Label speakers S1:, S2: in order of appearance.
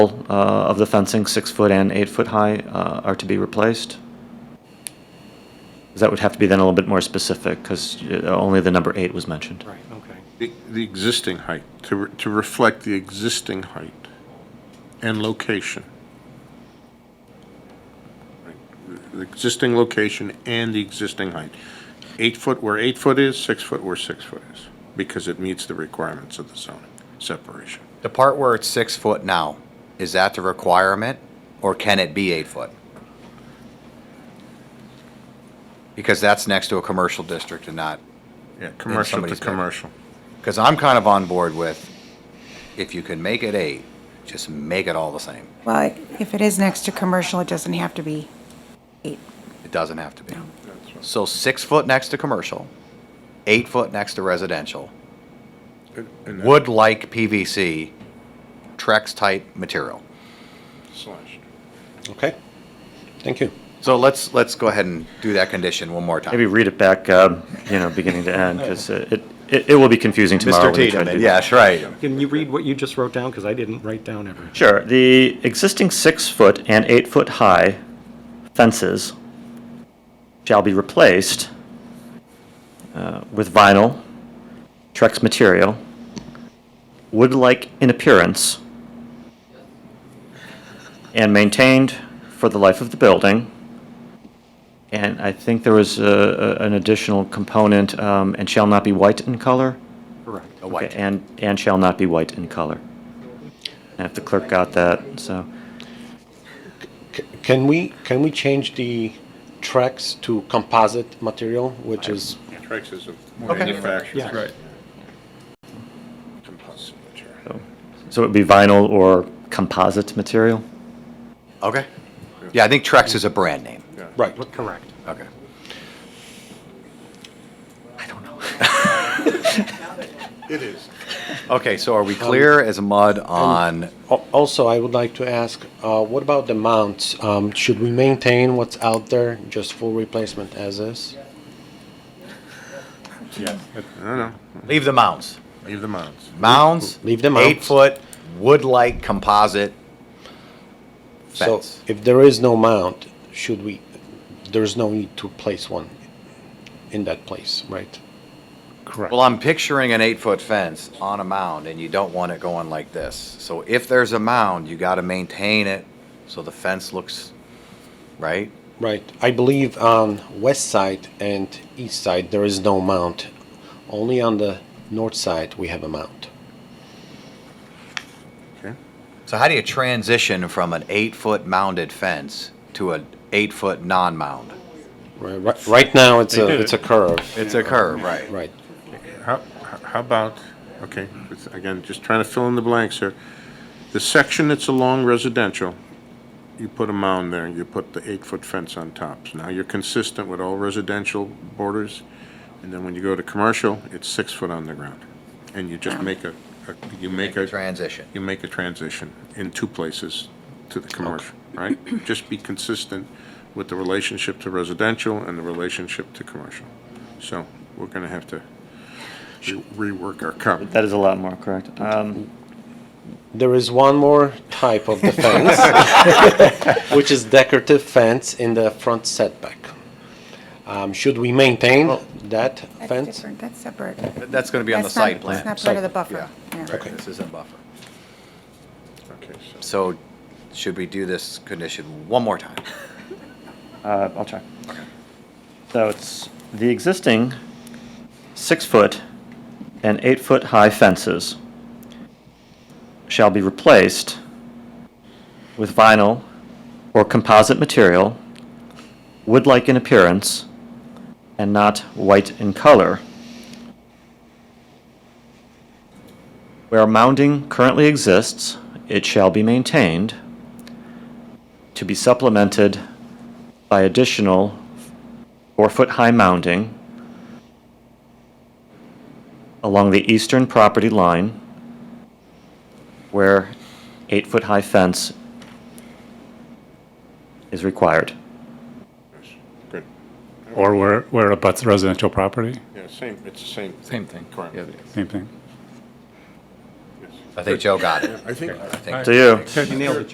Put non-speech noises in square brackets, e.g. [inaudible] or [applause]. S1: uh, of the fencing, six foot and eight foot high, uh, are to be replaced? 'Cause That would have to be then a little bit more specific, because only the number eight was mentioned.
S2: Right, okay.
S3: The the existing height, to, re- to reflect the existing height and location. Right, The the existing location and the existing height. Eight foot where eight foot is, six foot where six foot is, because it meets the requirements of the zoning separation.
S4: The part where it's six foot now, is that the requirement, or can it be eight foot? Because that's next to a commercial district and not,
S3: Yeah, commercial to
S4: somebody's bed.
S3: commercial.
S4: because I'm kind of on board with, if you can make it eight, just make it all the same.
S5: Well, if it is next to commercial, it doesn't have to be eight.
S4: It doesn't have to be. So six foot next to commercial, eight foot next to residential,
S3: And- and that
S4: wood like PVC, Trex type material.
S3: slashed.
S6: Okay, thank you.
S4: So let's, let's go ahead and do that condition one more time.
S1: Maybe read it back, um, you know, beginning to end, because it, it it will be confusing tomorrow. when we try to do that.
S4: Yes, right.
S2: Can you read what you just wrote down? Because I didn't write down everything.
S1: Sure. The existing six-foot and eight-foot-high fences shall be replaced uh, with vinyl, Trex material, wood-like in appearance, and maintained for the life of the building. And I think there was a- a- an additional component, um, and shall not be white in color?
S2: Correct.
S4: A
S1: Okay,
S4: white.
S1: And, and shall not be white in color. And if the clerk got that, so,
S6: C- Can we, can we change the tracks to composite material, which is,
S3: Trex is a manufacturer.
S2: Yeah. Right.
S3: Composite material.
S1: so it would be vinyl or composite material?
S4: Okay. Yeah, I think Trex is a brand name.
S6: right,
S2: Correct.
S4: Okay.
S1: I don't know.
S3: It is.
S4: Okay, so are we clear Um, as mud on,
S6: Al- Also, I would like to ask, uh, what about the mounts? Um, should we maintain what's out there, just full replacement as is?
S3: I don't know.
S4: leave the mounds?
S3: Leave the mounds.
S4: Mounds?
S6: Leave the
S4: Eight
S6: mounds.
S4: foot, wood-like composite
S6: So
S4: fence.
S6: if there is no mount, should we, there's no need to place one in that place, right?
S4: Well, I'm picturing an eight-foot fence on a mound, and you don't want it going like this. So if there's a mound, you gotta maintain it so the fence looks, right?
S6: Right. I believe on west side and east side, there is no mount. Only on the north side, we have a mount.
S3: Okay.
S4: So how do you transition from an eight-foot mounded fence to an eight-foot non-mound?
S6: Right, right, right now, it's a, it's a curve.
S4: It's a curve, right?
S6: Right.
S3: How, how about, okay, it's- again, just trying to fill in the blanks here. The section that's along residential, you put a mound there, you put the eight-foot fence on top. So Now you're consistent with all residential borders, and then when you go to commercial, it's six foot on the ground. And you just make a, a- you make a,
S4: Transition.
S3: you make a transition in two places to the commercial, right? Just be consistent with the relationship to residential and the relationship to commercial. So we're gonna have to re- rework our comment.
S1: That is a lot more correct. Um,
S6: There is one more type of [laughs] the fence, which is decorative fence in the front setback. Um, should we maintain that
S5: That's
S6: fence?
S5: different, that's separate.
S4: That's gonna be on the
S5: That's not-
S4: site plan.
S5: It's not part of the
S6: Site
S5: buffer. yeah.
S4: This isn't buffer.
S3: Okay, so-
S4: So should we do this condition one more time?
S1: Uh, I'll try. So it's the existing six-foot and eight-foot-high fences shall be replaced with vinyl or composite material, wood-like in appearance, and not white in color. Where mounding currently exists, it shall be maintained to be supplemented by additional four-foot-high mounding along the eastern property line where eight-foot-high fence is required.
S3: Good.
S7: Or where, where it abuts residential property,
S3: Yeah, same, it's the same.
S8: Same thing.
S3: Correct.
S8: Yeah.
S7: same thing.
S3: Yes.
S9: I think Joe got it.
S10: I think
S9: I think
S4: To you.
S2: You nailed it,